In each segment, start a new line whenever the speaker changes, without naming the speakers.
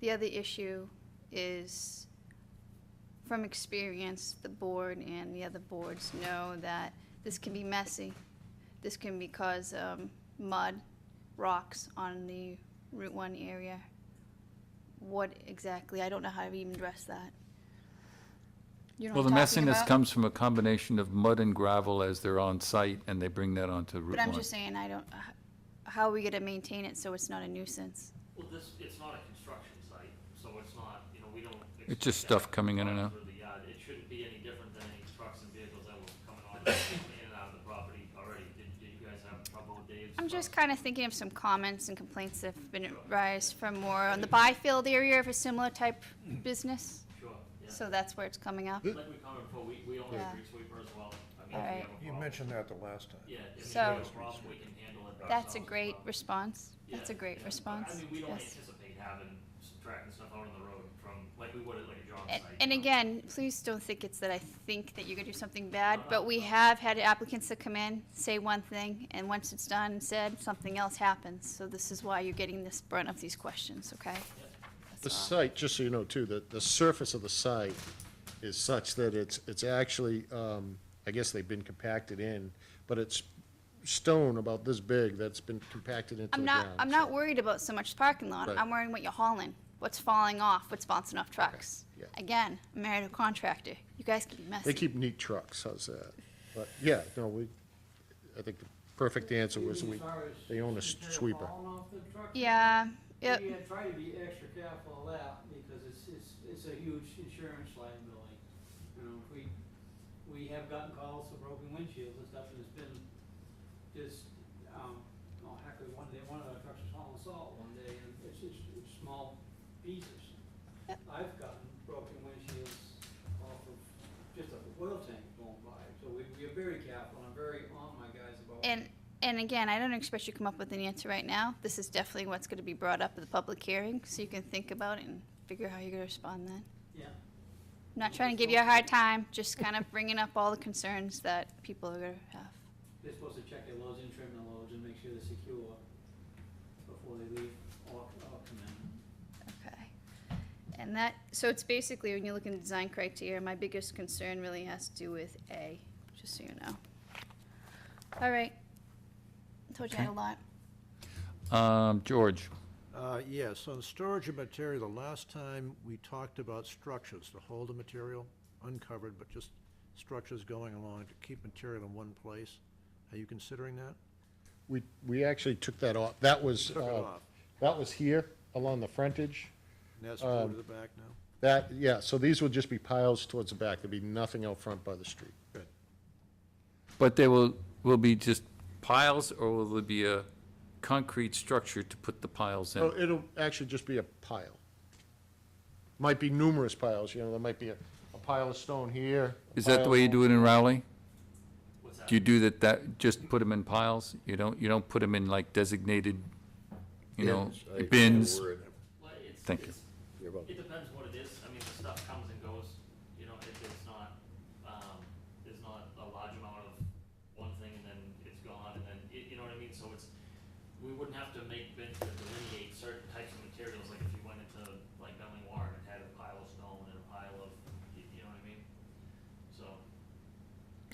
The other issue is, from experience, the board and the other boards know that this can be messy. This can be cause um, mud, rocks on the Route One area. What exactly? I don't know how to even address that. You know
Well, the
what I'm talking
messiness
about?
comes from a combination of mud and gravel as they're on site, and they bring that onto Route
But
1.
I'm just saying, I don't, h- how are we gonna maintain it so it's not a nuisance?
Well, this, it's not a construction site, so it's not, you know, we don't.
It's just
expect
stuff
to
coming in
run
and out.
Through the yard, it shouldn't be any different than any trucks and vehicles that were coming on in and out of the property already. Did, did you guys have trouble with Dave's?
I'm just
trucks?
kinda thinking of some comments and complaints that have been raised from more on the Byfield area of a similar type business,
Sure, yeah.
so that's where it's coming up.
Like we commented before, we, we own a
Yeah.
street sweeper as well. I mean, if we
Alright.
have a
You
problem-
mentioned that the last time.
Yeah, if we
So-
have a problem, we can handle it.
That's a
ourselves as
great
well.
response, that's a
Yeah,
great
yeah. I
response,
mean, we don't
yes.
anticipate having, subtracting stuff out on the road from, like we would at like a job
A-
site.
And
you know?
again, please don't think it's that I think that you're gonna do something bad, but we have had applicants that come in, say one thing, and once it's done and said, something else happens. So this is why you're getting this brunt of these questions, okay? That's
The
all.
site, just so you know too, the, the surface of the site is such that it's, it's actually, um, I guess they've been compacted in, but it's stone about this big that's been compacted into the
I'm not,
ground.
I'm
so-
not worried about so much parking lot.
Right.
I'm worrying what you're hauling, what's falling off, what's bouncing off trucks.
yeah.
Again, I'm married to a contractor. You guys can be
They
messy.
keep neat trucks, how's that? But, yeah, no, we, I think the perfect answer was we, they own a
Is there
sweeper.
falling off the truck?
Yeah,
Yeah,
yep,
try to be extra careful of that, because it's, it's, it's a huge insurance liability. You know, we, we have gotten calls for broken windshields and stuff, and it's been just, um, oh, heck, we- one day, one of our trucks was hauling salt one day, and it's just, it's small pieces.
Yep.
I've gotten broken windshields off of just a oil tank going by, so we, we're very careful, and I'm very on my guys about.
and, and again, I don't expect you to come up with an answer right now. This is definitely what's gonna be brought up at the public hearing, so you can think about it and figure how you're gonna respond then.
Yeah.
I'm not trying to give you a hard time, just kind of bringing up all the concerns that people are gonna have.
They're supposed to check their loads and trim their loads and make sure they're secure before they leave or, or come in.
Okay. And that, so it's basically, when you look in the design criteria, my biggest concern really has to do with A, just so you know. All right. Told you I had a lot.
Um, George,
Uh, yes, on storage of material, the last time we talked about structures to hold the material, uncovered, but just structures going along to keep material in one place. Are you considering that?
We, we actually took that off, that was,
Took it
uh,
off.
that was here along the frontage.
And that's moved to the back now?
That, yeah, so these would just be piles towards the back, there'd be nothing out front by the street.
Good.
but there will, will be just piles, or will there be a concrete structure to put the piles
Oh,
in?
it'll actually just be a pile. Might be numerous piles, you know, there might be a, a pile of stone here. a
Is that the
pile-
way you do it in Rowley?
What's that?
Do you do that, that, just put them in piles? You don't, you don't put them in like designated, you know,
Bins, I forget the
bins?
word.
Well, it's-
Thank you.
it's-
You're welcome.
It depends what it is. I mean, the stuff comes and goes, you know, if it's not, um, there's not a large amount of one thing and then it's gone and then, y- you know what I mean? So it's, we wouldn't have to make bins to delineate certain types of materials, like if you went into like Bentley Warren and had a pile of stone and a pile of, y- you know what I mean? So,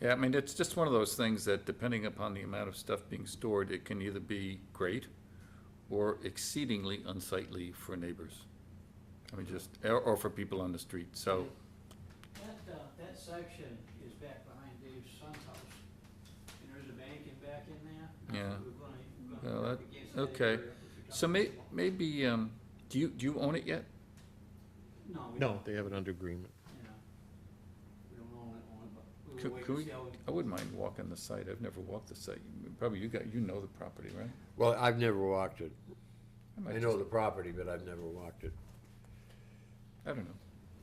Yeah, I mean, it's just one of those things that depending upon the amount of stuff being stored, it can either be great or exceedingly unsightly for neighbors. I mean, just, or, or for people on the street, so,
That, uh, that section is back behind Dave's son's house, and there's a bank in back in there.
Yeah.
We're gonna, we're
Well,
gonna work
uh, that-
against that
okay.
area if we
so may,
don't-
maybe, um, do you, do you own it yet?
No, we
No,
don't,
they have it under agreement.
you know, we don't own it, own it, but we
Could-
will wait
could
and
we-
see how we.
I wouldn't mind walking the site, I've never walked the site, probably you got, you know the property, right?
Well, I've never walked it.
might
I know the property, but I've never walked it.
I don't know,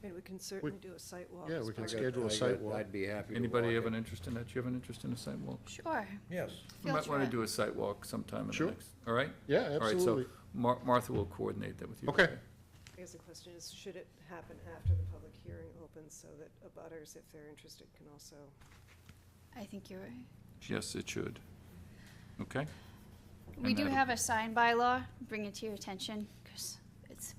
I mean, we can certainly do a site walk.
Yeah, we
as
can
part of-
schedule- a
I got-
site walk.
I'd be happy to
anybody have
walk
an
it.
interest in that, Do you have an interest in a site walk?
Sure.
Yes.
We
Field
might wanna
trip.
do a site walk sometime in the
Sure.
next, all right?
Yeah,
All right,
absolutely.
so Mar- Martha will coordinate that with you.
Okay.
I guess the question is, should it happen after the public hearing opens so that abutters, if they're interested, can also?
I think you're right.
Yes, it should. Okay?
We
And
do
that'll-
have a sign bylaw, bring it to your attention, because it's